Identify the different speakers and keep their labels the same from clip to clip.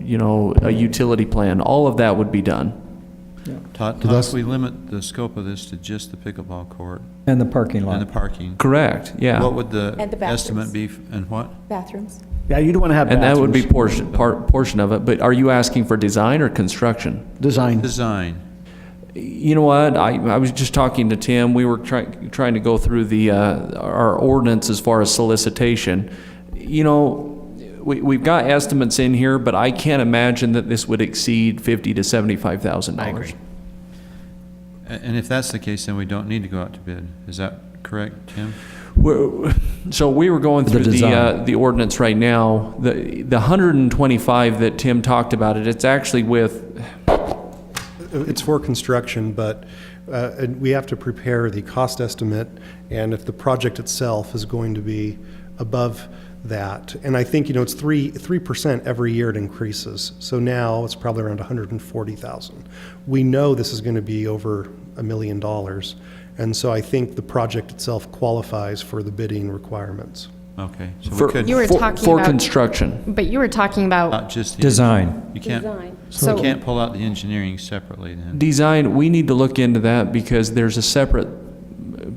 Speaker 1: you know, a utility plan, all of that would be done.
Speaker 2: Todd,
Speaker 3: But
Speaker 2: Todd,
Speaker 3: that's-
Speaker 2: if we limit the scope of this to just the pickleball court
Speaker 4: And the parking
Speaker 2: and the
Speaker 4: lot.
Speaker 2: parking,
Speaker 1: Correct,
Speaker 2: what
Speaker 1: yeah.
Speaker 2: would the
Speaker 5: And the
Speaker 2: estimate be, f- and what?
Speaker 5: Bathrooms?
Speaker 6: Yeah, you'd want to have
Speaker 1: And that would be
Speaker 6: bathrooms.
Speaker 1: portion, part, portion of it, but are you asking for design or construction?
Speaker 6: Design.
Speaker 2: Design,
Speaker 1: You know what? I, I was just talking to Tim. We were trying, trying to go through the, uh, our ordinance as far as solicitation. You know, we, we've got estimates in here, but I can't imagine that this would exceed fifty to seventy-five thousand dollars.
Speaker 2: A- and if that's the case, then we don't need to go out to bid, is that correct, Tim?
Speaker 1: We're- So we were going
Speaker 4: The
Speaker 1: through the, uh,
Speaker 4: design.
Speaker 1: the ordinance right now. The, the hundred and twenty-five that Tim talked about it, it's actually with,
Speaker 3: It's for construction, but uh, and we have to prepare the cost estimate, and if the project itself is going to be above that. And I think, you know, it's 3, 3% every year it increases. So now it's probably around 140,000. We know this is going to be over a million dollars, and so I think the project itself qualifies for the bidding requirements.
Speaker 2: Okay, so
Speaker 1: for,
Speaker 2: we could,
Speaker 7: You were
Speaker 1: for,
Speaker 7: talking
Speaker 1: for
Speaker 7: about-
Speaker 1: construction.
Speaker 7: But you were talking about,
Speaker 2: not just the.
Speaker 4: Design.
Speaker 2: You can't,
Speaker 5: Design.
Speaker 2: you
Speaker 7: so,
Speaker 2: can't pull out the engineering separately then.
Speaker 1: Design, we need to look into that because there's a separate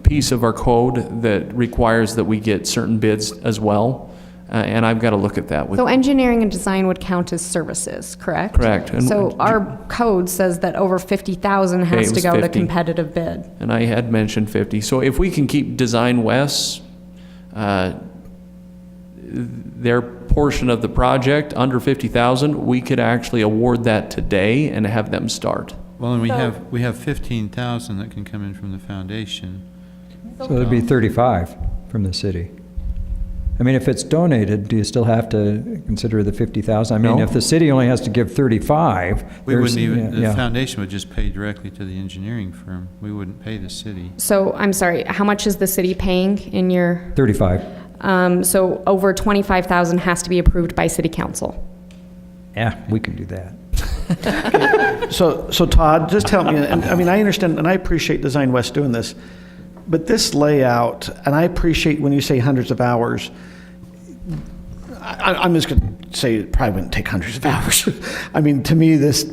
Speaker 1: piece of our code that requires that we get certain bids as well, uh, and I've got to look at that with,
Speaker 7: so engineering and design would count as services, correct?
Speaker 1: Correct, and-
Speaker 7: So our code says that over 50,000
Speaker 1: Okay, it
Speaker 7: has to
Speaker 1: was
Speaker 7: go to
Speaker 1: 50.
Speaker 7: competitive bid.
Speaker 1: and I had mentioned 50. So if we can keep Design West, uh, their portion of the project under 50,000, we could actually award that today and have them start.
Speaker 2: Well, and we
Speaker 5: So-
Speaker 2: have, we have 15,000 that can come in from the foundation.
Speaker 4: So it'd be 35 from the city. I mean, if it's donated, do you still have to consider the 50,000? I mean,
Speaker 1: No.
Speaker 4: if the city only has to give 35,
Speaker 2: We
Speaker 4: there's-
Speaker 2: wouldn't even, the
Speaker 4: yeah.
Speaker 2: foundation would just pay directly to the engineering firm. We wouldn't pay the city.
Speaker 7: So, I'm sorry, how much is the city paying in your,
Speaker 4: 35.
Speaker 7: um, so over 25,000 has to be approved by city council?
Speaker 4: Yeah, we can do that.
Speaker 6: So, so Todd, just help me, and, I mean, I understand, and I appreciate Design West doing this, but this layout, and I appreciate when you say hundreds of hours, I, I- I'm just gonna say it probably wouldn't take hundreds of hours. I mean, to me, this,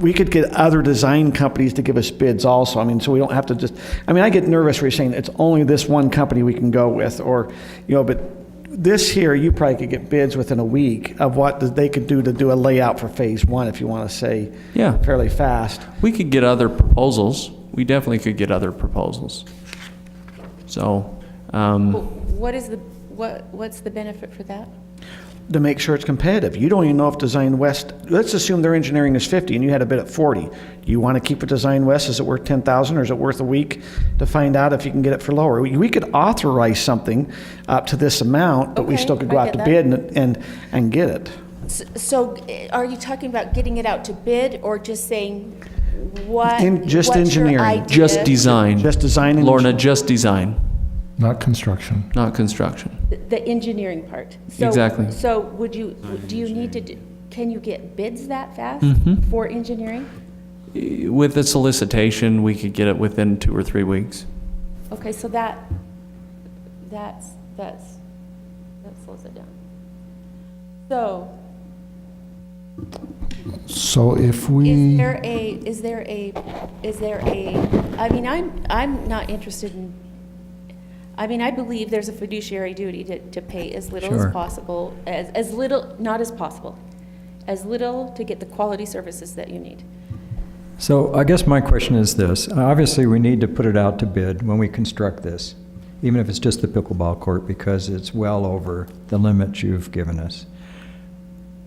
Speaker 6: we could get other design companies to give us bids also, I mean, so we don't have to just, I mean, I get nervous when you're saying it's only this one company we can go with, or, you know, but this here, you probably could get bids within a week of what they could do to do a layout for phase one, if you wanna say
Speaker 1: Yeah.
Speaker 6: fairly fast.
Speaker 1: We could get other proposals. We definitely could get other proposals. So, um,
Speaker 5: What is the, what, what's the benefit for that?
Speaker 6: to make sure it's competitive. You don't even know if Design West, let's assume their engineering is 50 and you had a bid at 40. Do you want to keep a Design West? Is it worth 10,000 or is it worth a week to find out if you can get it for lower? We we could authorize something up to this amount, but we
Speaker 5: Okay,
Speaker 6: still could go
Speaker 5: I
Speaker 6: out to
Speaker 5: get
Speaker 6: bid and, and, and get it.
Speaker 5: S- So eh, are you talking about getting it out to bid or just saying what?
Speaker 6: In- just
Speaker 5: what's your
Speaker 6: engineering.
Speaker 5: idea?
Speaker 1: Just design.
Speaker 6: Just design and-
Speaker 1: Lorna, just design,
Speaker 8: not construction.
Speaker 1: not construction.
Speaker 5: The- The engineering part. So-
Speaker 1: Exactly.
Speaker 5: So would you, do you need to, d- can you get bids that fast for engineering?
Speaker 1: With the solicitation, we could get it within two or three weeks.
Speaker 5: Okay, so that, that's, that's, that slows it down. So
Speaker 8: So if
Speaker 5: Is
Speaker 4: Mm.
Speaker 8: we,
Speaker 5: there a, is there a, is there a, I mean, I'm, I'm not interested in, I mean, I believe there's a fiduciary duty to, to pay as little as
Speaker 4: Sure.
Speaker 5: possible, as, as little, not as possible, as little to get the quality services that you need.
Speaker 4: So I guess my question is this. Obviously, we need to put it out to bid when we construct this, even if it's just the pickleball court, because it's well over the limit you've given us.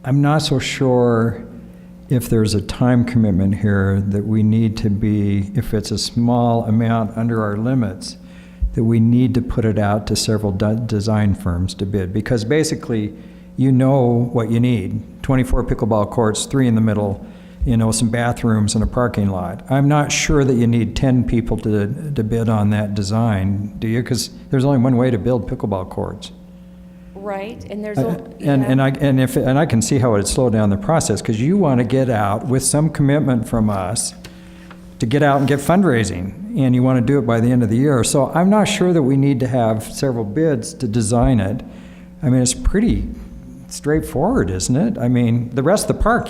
Speaker 4: I'm not so sure if there's a time commitment here that we need to be, if it's a small amount under our limits, that we need to put it out to several de- design firms to bid. Because basically, you know what you need. 24 pickleball courts, three in the middle, you know, some bathrooms and a parking lot. I'm not sure that you need 10 people to, to bid on that design, do you? Because there's only one way to build pickleball courts.
Speaker 5: Right, and there's,
Speaker 4: Uh,
Speaker 5: al-
Speaker 4: And,
Speaker 5: yeah.
Speaker 4: and I, and if, and I can see how it'd slow down the process, because you want to get out with some commitment from us to get out and get fundraising, and you want to do it by the end of the year. So I'm not sure that we need to have several bids to design it. I mean, it's pretty straightforward, isn't it? I mean, the rest of the park,